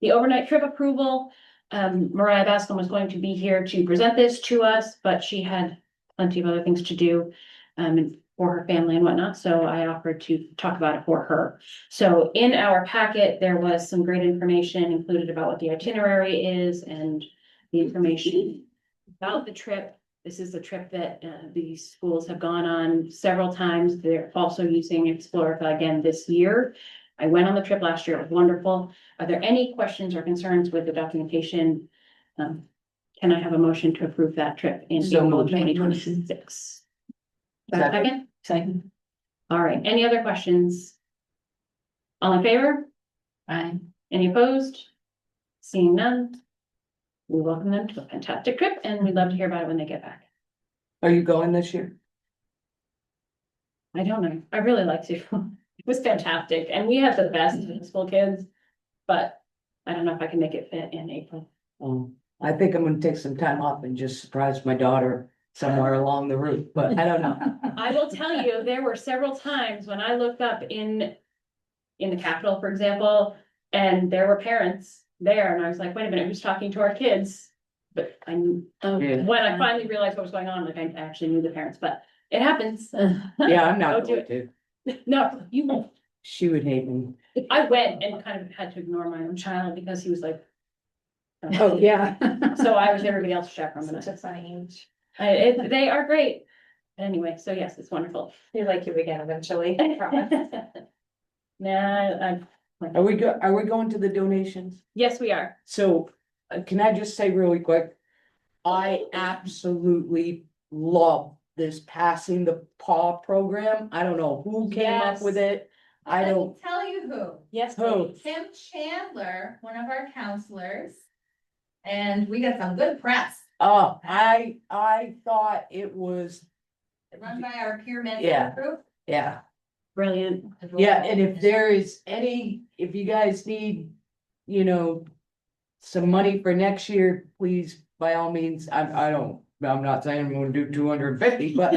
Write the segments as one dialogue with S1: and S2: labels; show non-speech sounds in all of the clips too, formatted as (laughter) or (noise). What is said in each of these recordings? S1: The overnight trip approval, um, Mariah Bascom was going to be here to present this to us, but she had plenty of other things to do. um, and for her family and whatnot, so I offered to talk about it for her. So in our packet, there was some great information included about what the itinerary is and the information about the trip. This is the trip that uh, these schools have gone on several times. They're also using Explorica again this year. I went on the trip last year. It was wonderful. Are there any questions or concerns with the documentation? Um, Can I have a motion to approve that trip in
S2: So
S1: April
S2: moved.
S1: twenty twenty-six?
S2: Second.
S1: Second?
S2: Second.
S1: All right. Any other questions? All in favor?
S2: Aye.
S1: Any opposed? Seeing none. We welcome them to a fantastic trip and we'd love to hear about it when they get back.
S2: Are you going this year?
S1: I don't know. I really liked it. (laughs) It was fantastic and we had the best high school kids. But I don't know if I can make it fit in April.
S2: Um, I think I'm gonna take some time off and just surprise my daughter somewhere along the route, but I don't know.
S1: I will tell you, there were several times when I looked up in, in the Capitol, for example, and there were parents there and I was like, wait a minute, who's talking to our kids? But I knew,
S2: Yeah.
S1: when I finally realized what was going on, like I actually knew the parents, but it happens.
S2: Yeah, I'm
S1: Don't
S2: not
S1: do
S2: going to.
S1: No, you won't.
S2: She would hate me.
S1: I went and kind of had to ignore my own child because he was like.
S2: Oh, yeah.
S1: (laughs) So I was everybody else's chaperone.
S3: Such a funny age.
S1: I, it, they are great. Anyway, so yes, it's wonderful.
S3: You're like you again eventually. (laughs)
S1: Nah, I,
S2: Are we go, are we going to the donations?
S1: yes, we are.
S2: So, uh, can I just say really quick? I absolutely love this passing the paw program. I don't know who came up with it. I
S4: Let me
S2: don't,
S4: Tell you who,
S1: Yes.
S2: who?
S4: Tim Chandler, one of our counselors. And we got some good press,
S2: Oh, I, I thought it was,
S4: run by our peer
S2: Yeah.
S4: mentor group.
S2: yeah.
S1: Brilliant.
S2: Yeah, and if there is any, if you guys need, you know. Some money for next year, please, by all means, I, I don't, I'm not saying I'm gonna do two hundred and fifty, but.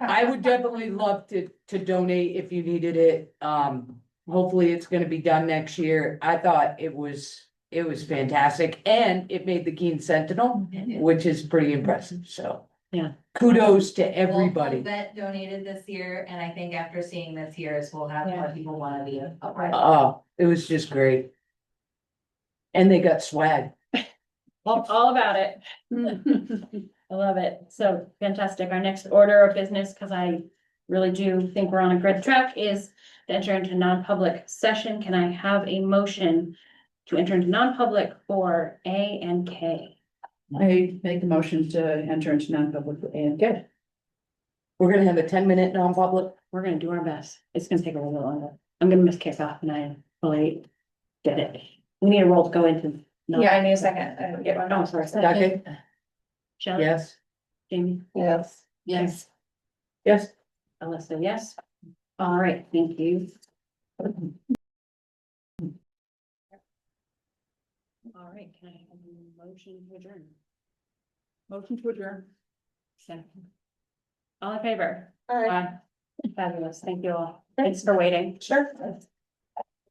S2: I would definitely love to, to donate if you needed it, um, hopefully it's gonna be done next year, I thought it was. It was fantastic, and it made the Keene Sentinel, which is pretty impressive, so.
S1: Yeah.
S2: Kudos to
S4: Well,
S2: everybody.
S4: That donated this year, and I think after seeing this year's, we'll have more people wanna be a a part.
S2: Oh, it was just great. And they got swag.
S1: All, (laughs) all
S3: (laughs)
S1: about it. I love it. So fantastic. Our next order of business, because I really do think we're on a good track, is to enter into non-public session. Can I have a motion to enter into non-public for A and K?
S5: I make a motion to enter into non-public and get.
S2: We're gonna have a ten minute non-public.
S1: We're gonna do our best. It's gonna take a little bit longer. I'm gonna miss kickoff and I fully did it. We need a roll to go into. non-
S3: Yeah, I need a second. I didn't get one.
S1: Oh, sorry.
S2: Duncan?
S1: Shelley,
S2: Yes.
S1: Jamie,
S3: Yes.
S5: Yes.
S2: Yes.
S1: Alyssa, yes. All right, thank you. All right, can I have a motion to adjourn?
S5: Motion to adjourn.
S1: Second. All in favor?
S3: All right.
S1: Aye. Fabulous. Thank you all. Thanks for waiting.
S3: Sure.